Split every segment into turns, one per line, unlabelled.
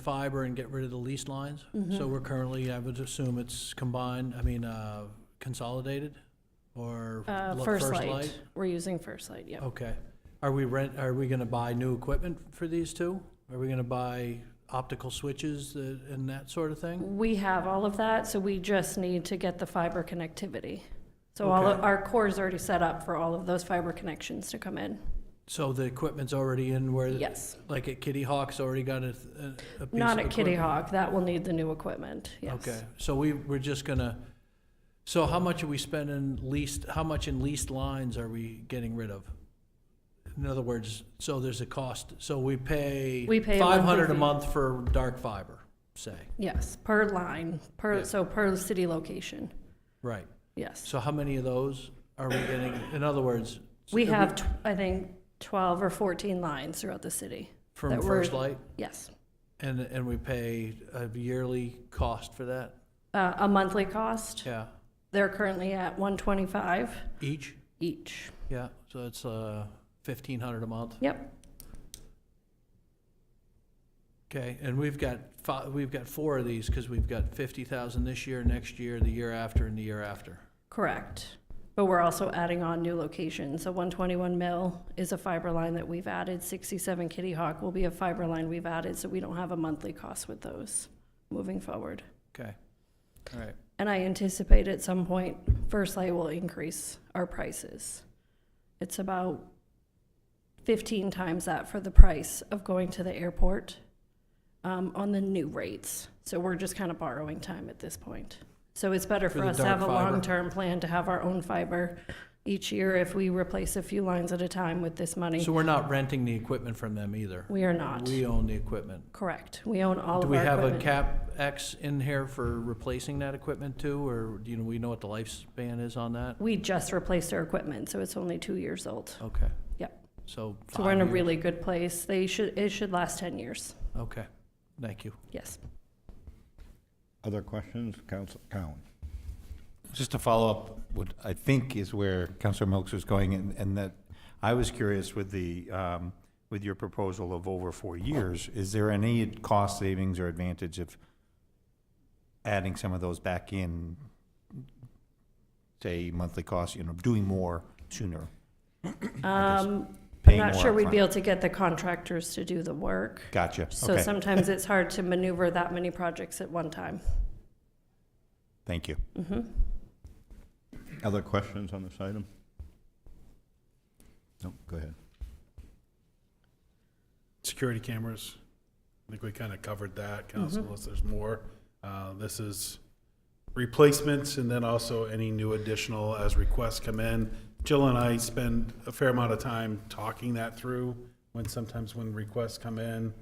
fiber and get rid of the leased lines.
Mm-hmm.
So we're currently, I would assume it's combined, I mean, uh, consolidated or
Uh,
lo-
First Light, we're using First Light, yep.
Okay. Are we rent, are we gonna buy new equipment for these two? Are we gonna buy optical switches uh, and that sort of thing?
We have all of that, so we just need to get the fiber connectivity. So all, of-
Okay.
our core is already set up for all of those fiber connections to come in.
So the equipment's already in where?
Yes.
Like at Kitty Hawk's already got a, th- a- a piece of
Not at Kitty
equipment?
Hawk, that will need the new equipment, yes.
Okay, so we, we're just gonna, so how much are we spending leased, how much in leased lines are we getting rid of? In other words, so there's a cost, so we pay
We pay a monthly
five hundred a
fee.
month for dark fiber, say,
Yes, per line, per,
Yeah.
so per city location,
right?
yes.
So how many of those are we getting, in other words?
We have, tw- I think, 12 or 14 lines throughout the city,
From
that we're-
First Light,
yes.
and, and we pay a yearly cost for that,
Uh, A monthly cost,
yeah,
they're currently at 125
each,
each,
yeah, so it's, uh, fifteen hundred a month.
yep.
Okay, and we've got fi- we've got four of these, because we've got fifty thousand this year, next year, the year after, and the year after.
Correct. But we're also adding on new locations. So 121 Mill is a fiber line that we've added. 67 Kitty Hawk will be a fiber line we've added, so we don't have a monthly cost with those moving forward.
Okay, all right,
And I anticipate at some point, First Light will increase our prices. It's about 15 times that for the price of going to the airport um, on the new rates. So we're just kind of borrowing time at this point. So it's better
For
for
the
us to have a
dark fiber.
long-term plan to have our own fiber each year if we replace a few lines at a time with this money.
so we're not renting the equipment from them either?
We are not.
We own the equipment.
Correct. We own all
Do
of
we
our
have a
equipment.
cap X in here for replacing that equipment too, or do you know, we know what the lifespan is on that?
We just replaced our equipment, so it's only two years old.
Okay,
Yep.
so
So we're in a
five years.
really good place. They should, it should last 10 years.
Okay, thank you.
Yes.
Other questions, Council Cowan?
Just to follow up, what I think is where Councilor Milks was going, and, and that I was curious with the, um, with your proposal of over four years, is there any cost savings or advantage of adding some of those back in, say, monthly costs, you know, doing more sooner?
Um, I'm
Paying
not
more
sure we'd be
upfront.
able to get the contractors to do the work.
Gotcha,
So
okay,
sometimes it's hard to maneuver that many projects at one time. Mm-hmm.
thank you.
Other questions on this item? No, go ahead.
Security cameras, I think we kind of covered that, council, unless there's more. Uh, This is replacements and then also any new additional as requests come in. Jill and I spend a fair amount of time talking that through when sometimes when requests come in,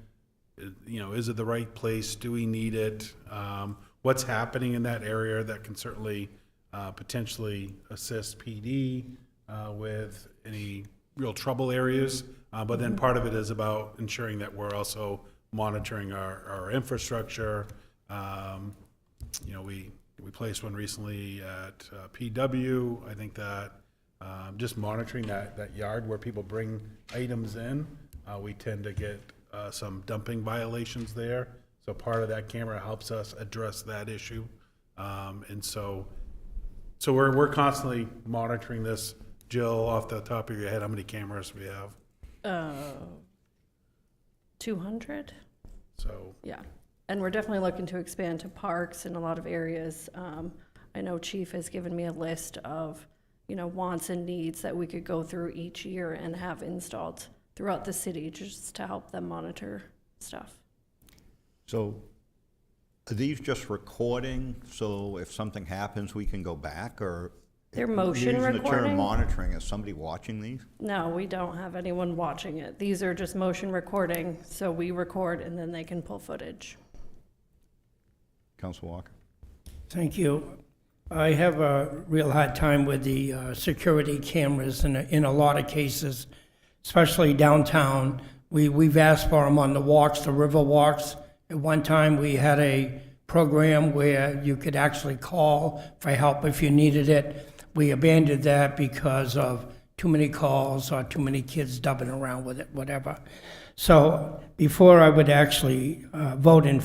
it- you know, is it the right place? Do we need it? Um, What's happening in that area that can certainly uh, potentially assist PD uh, with any real trouble areas? Uh, But then part of it is about ensuring that we're also monitoring our, our infrastructure. Um, You know, we, we placed one recently at uh, PW. I think that um, just monitoring that, that yard where people bring items in. Uh, we tend to get, uh, some dumping violations there. So part of that camera helps us address that issue. Um, and so, so we're, we're constantly monitoring this. Jill, off the top of your head, how many cameras we have?
Two hundred?
So,
Yeah. And we're definitely looking to expand to parks in a lot of areas. Um, I know Chief has given me a list of, you know, wants and needs that we could go through each year and have installed throughout the city just to help them monitor stuff.
So are these just recording, so if something happens, we can go back, or?
They're motion
Using the
recording?
term monitoring, is somebody watching these?
No, we don't have anyone watching it. These are just motion recording, so we record and then they can pull footage.
Council Walker?
Thank you. I have a real hard time with the uh, security cameras in, a- in a lot of cases, especially downtown. We, we've asked for them on the walks, the river walks. At one time, we had a program where you could actually call for help if you needed it. We abandoned that because of too many calls or too many kids dubbing around with it, whatever. So before I would actually uh, vote in